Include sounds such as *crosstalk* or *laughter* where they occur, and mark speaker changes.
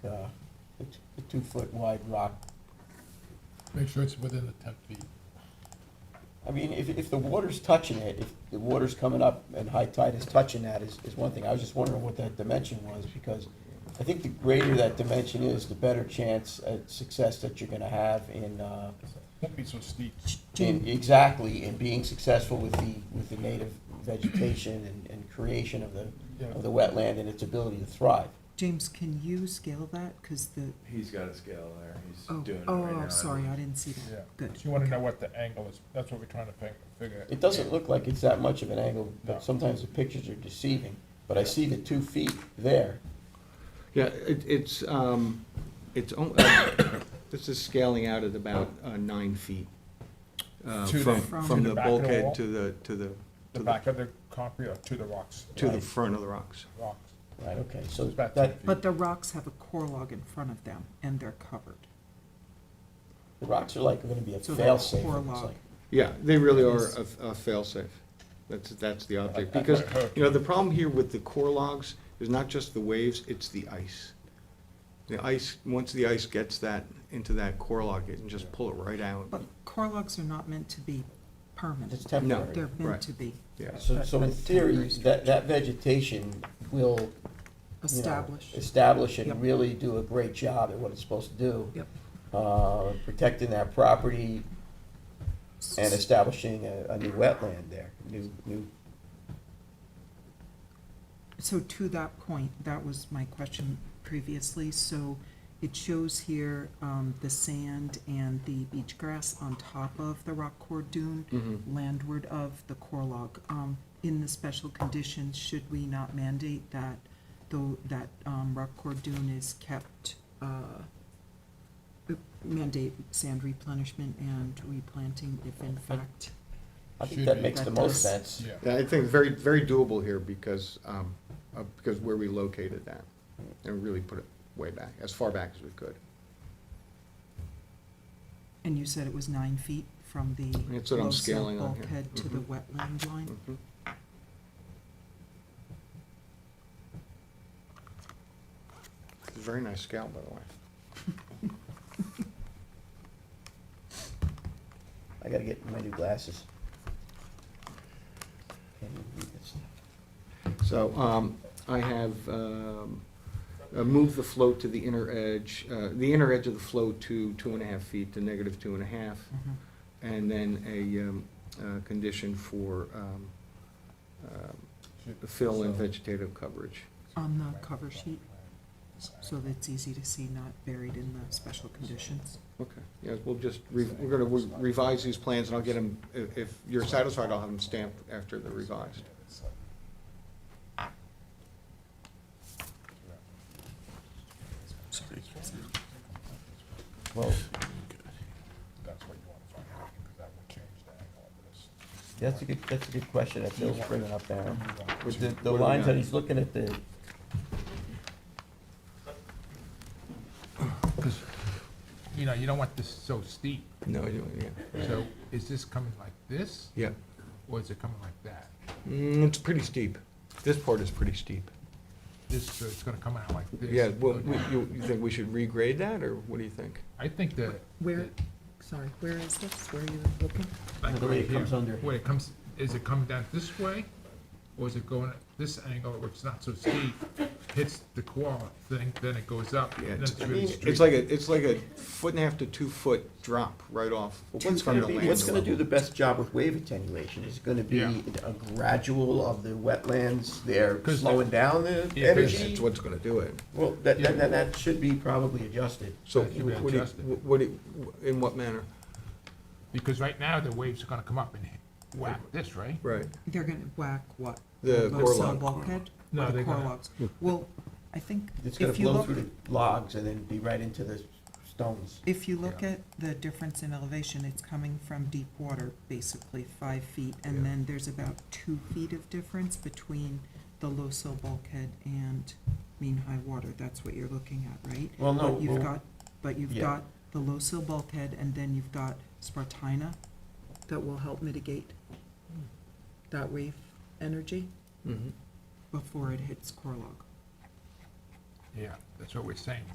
Speaker 1: uh, a t- a two-foot wide rock.
Speaker 2: Make sure it's within the ten feet.
Speaker 1: I mean, if, if the water's touching it, if the water's coming up and high tide is touching that is, is one thing. I was just wondering what that dimension was, because I think the greater that dimension is, the better chance at success that you're gonna have in, uh,
Speaker 2: Won't be so steep.
Speaker 1: in, exactly, in being successful with the, with the native vegetation and, and creation of the, of the wetland and its ability to thrive.
Speaker 3: James, can you scale that? Because the,
Speaker 4: He's got a scale there, he's
Speaker 3: oh,
Speaker 4: doing it
Speaker 3: oh,
Speaker 4: right now.
Speaker 3: I'm sorry, I didn't see
Speaker 2: Yeah. So
Speaker 3: that. Good.
Speaker 2: you wanna know what the angle is, that's what we're trying to fig- figure.
Speaker 1: It doesn't look like it's that much of an angle,
Speaker 2: No.
Speaker 1: but sometimes the pictures are deceiving. But I see the two feet there.
Speaker 5: Yeah, it, it's, um, it's, on- *coughs* uh, this is scaling out at about uh, nine feet. uh,
Speaker 2: To the-
Speaker 5: From,
Speaker 3: From-
Speaker 5: from
Speaker 2: to the
Speaker 5: the
Speaker 2: back of the wall?
Speaker 5: bulkhead to the, to the,
Speaker 2: The
Speaker 5: to
Speaker 2: back
Speaker 5: the,
Speaker 2: of the concrete or to the rocks?
Speaker 5: to the
Speaker 1: Right.
Speaker 5: front of the rocks.
Speaker 2: Rocks.
Speaker 1: Right, okay, so
Speaker 2: It's about
Speaker 1: that,
Speaker 2: 10
Speaker 3: But
Speaker 2: feet.
Speaker 3: the rocks have a core log in front of them and they're covered.
Speaker 1: the rocks are like, gonna be a
Speaker 3: So they're
Speaker 1: fail-safe, it
Speaker 3: core
Speaker 1: looks
Speaker 3: log.
Speaker 1: like.
Speaker 5: Yeah, they really are
Speaker 3: Yes.
Speaker 5: a, a fail-safe. That's, that's the object.
Speaker 2: I- I-
Speaker 5: Because,
Speaker 2: I-
Speaker 5: you know, the problem here with the core logs is not just the waves, it's the ice. The ice, once the ice gets that, into that core log, it can just pull it right out.
Speaker 3: But core logs are not meant to be
Speaker 1: It's
Speaker 3: permanent.
Speaker 1: temporary.
Speaker 3: They're meant
Speaker 5: Right.
Speaker 3: to be
Speaker 5: Yeah.
Speaker 1: So, so in theory, that, that vegetation will, you know,
Speaker 3: established.
Speaker 1: Establish
Speaker 3: Yep.
Speaker 1: and really do a great job at what it's supposed to do.
Speaker 3: Yep.
Speaker 1: Uh, protecting that property and establishing a, a new wetland there, new, new,
Speaker 3: So to that point, that was my question previously. So it shows here um, the sand and the beach grass on top of the rock core dune,
Speaker 5: Mhm.
Speaker 3: landward of the core log. Um, In the special conditions, should we not mandate that, though, that um, rock core dune is kept, uh, mandate sand replenishment and replanting if in fact,
Speaker 1: I think
Speaker 2: Should
Speaker 1: that
Speaker 2: be.
Speaker 1: makes the
Speaker 3: That
Speaker 1: most
Speaker 3: does.
Speaker 1: sense.
Speaker 2: Yeah.
Speaker 5: Yeah, I think very, very doable here because, um, uh, because where we located that and really put it way back, as far back as we could.
Speaker 3: and you said it was nine feet from the
Speaker 5: That's what I'm
Speaker 3: low silt
Speaker 5: scaling on here. Mm-hmm.
Speaker 3: bulkhead to the wetland line?
Speaker 5: Mhm. It's a Very nice scale, by the way.
Speaker 1: I gotta get my new glasses. Can't even read this.
Speaker 5: So um, I have um, uh, moved the float to the inner edge, uh, the inner edge of the float to two and a half feet, to negative two and a half.
Speaker 3: Mhm.
Speaker 5: And then a um, uh, condition for um, um,
Speaker 2: Should-
Speaker 5: fill and
Speaker 2: so-
Speaker 5: vegetative coverage.
Speaker 3: On the cover sheet,
Speaker 5: Mm-hmm.
Speaker 2: Side.
Speaker 3: so that it's easy to see, not buried in the special conditions.
Speaker 5: Okay, yeah, we'll just, re- we're gonna re- revise these plans, and I'll get them, if, if you're satisfied, I'll have them stamped after they're revised.
Speaker 3: Sorry.
Speaker 1: Well,
Speaker 2: That's what you wanna find out, because that will change the angle of this.
Speaker 1: that's a good, that's a good question that Bill's bringing up there.
Speaker 2: You want-
Speaker 1: With the,
Speaker 5: What do
Speaker 1: the
Speaker 5: we
Speaker 1: lines that
Speaker 5: got?
Speaker 1: he's looking at the,
Speaker 2: You know, you don't want this so steep,
Speaker 5: No, you don't, yeah.
Speaker 2: so is this coming like this,
Speaker 5: Yeah,
Speaker 2: or is it coming like that?
Speaker 5: Mm, it's pretty steep. This part is pretty steep.
Speaker 2: This, so it's gonna come out like this?
Speaker 5: Yeah,
Speaker 2: and
Speaker 5: well,
Speaker 2: go
Speaker 5: we-
Speaker 2: down.
Speaker 5: you, you think we should regrade that, or what do you think?
Speaker 2: I think that.
Speaker 3: Where,
Speaker 2: that-
Speaker 3: sorry, where is this? Where are you looking?
Speaker 2: like
Speaker 1: the way
Speaker 2: right
Speaker 1: it comes
Speaker 2: here.
Speaker 1: under.
Speaker 2: Wait, it comes, is it coming down this way, or is it going at this angle, which is not so steep, hits the core thing, then it goes up,
Speaker 5: Yeah,
Speaker 2: and then
Speaker 5: it's-
Speaker 2: it's really straight?
Speaker 5: It's like a, it's like a foot and a half to two foot drop right off.
Speaker 1: What's
Speaker 5: from
Speaker 1: gonna
Speaker 5: the
Speaker 1: be,
Speaker 5: land
Speaker 1: what's gonna do
Speaker 5: level.
Speaker 1: the best job with wave attenuation? Is it gonna be
Speaker 2: Yeah.
Speaker 1: a gradual of the wetlands, they're
Speaker 2: 'Cause
Speaker 1: slowing down the
Speaker 2: Yeah, 'cause
Speaker 5: That's
Speaker 1: energy?
Speaker 5: what's gonna do it.
Speaker 1: Well, that,
Speaker 2: Yeah.
Speaker 1: then, then that should be probably adjusted.
Speaker 5: So,
Speaker 2: That should be
Speaker 5: what do you,
Speaker 2: adjusted.
Speaker 5: what do, you- in what manner?
Speaker 2: Because right now, the waves are gonna come up and hit- whack this, right?
Speaker 5: Right.
Speaker 3: They're gonna whack what?
Speaker 5: The
Speaker 3: low
Speaker 5: core
Speaker 3: sill
Speaker 5: log.
Speaker 3: Bulkhead?
Speaker 2: No,
Speaker 3: Or the
Speaker 2: they're
Speaker 3: core
Speaker 2: gonna-
Speaker 3: logs? Well, I think
Speaker 1: It's gonna
Speaker 3: if you
Speaker 1: blow
Speaker 3: look,
Speaker 1: through the logs and then be right into the stones.
Speaker 3: if you look
Speaker 2: Yeah.
Speaker 3: at the difference in elevation, it's coming from deep water, basically five feet.
Speaker 5: Yeah.
Speaker 3: And then there's about two feet of difference between the low sill bulkhead and mean high water. That's what you're looking at, right?
Speaker 1: Well, no,
Speaker 3: But you've
Speaker 1: well,
Speaker 3: got, but you've
Speaker 1: Yeah.
Speaker 3: got the low sill bulkhead, and then you've got Spartina that will help mitigate that wave energy
Speaker 5: Mm-hmm.
Speaker 3: before it hits core log.
Speaker 2: Yeah, that's what we're saying,